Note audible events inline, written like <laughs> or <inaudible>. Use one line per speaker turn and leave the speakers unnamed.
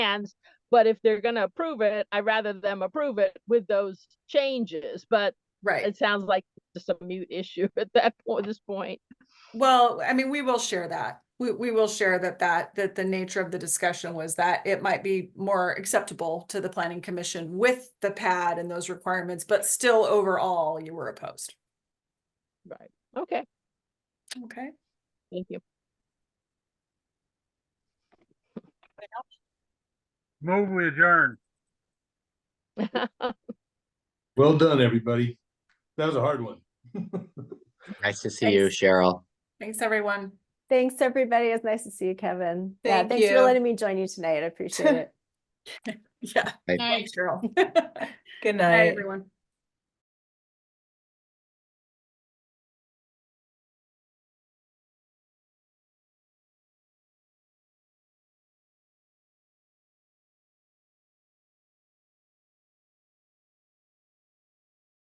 plans. But if they're gonna approve it, I'd rather them approve it with those changes, but
Right.
it sounds like just a mute issue <laughs> at that point, this point.
Well, I mean, we will share that. We, we will share that, that, that the nature of the discussion was that it might be more acceptable to the planning commission with the pad and those requirements, but still overall you were opposed.
Right, okay,
Okay.
thank you.
Move we adjourn.
<laughs>
Well done, everybody. That was a hard one. <laughs>
Nice to see you,
Thanks.
Cheryl.
Thanks, everyone.
Thanks, everybody. It's nice to see you, Kevin. Yeah,
Thank
thanks
you.
for letting me join you tonight. I appreciate it.
Yeah.
Bye.
Thanks, Cheryl.
Good
<laughs> Bye,
night.
everyone.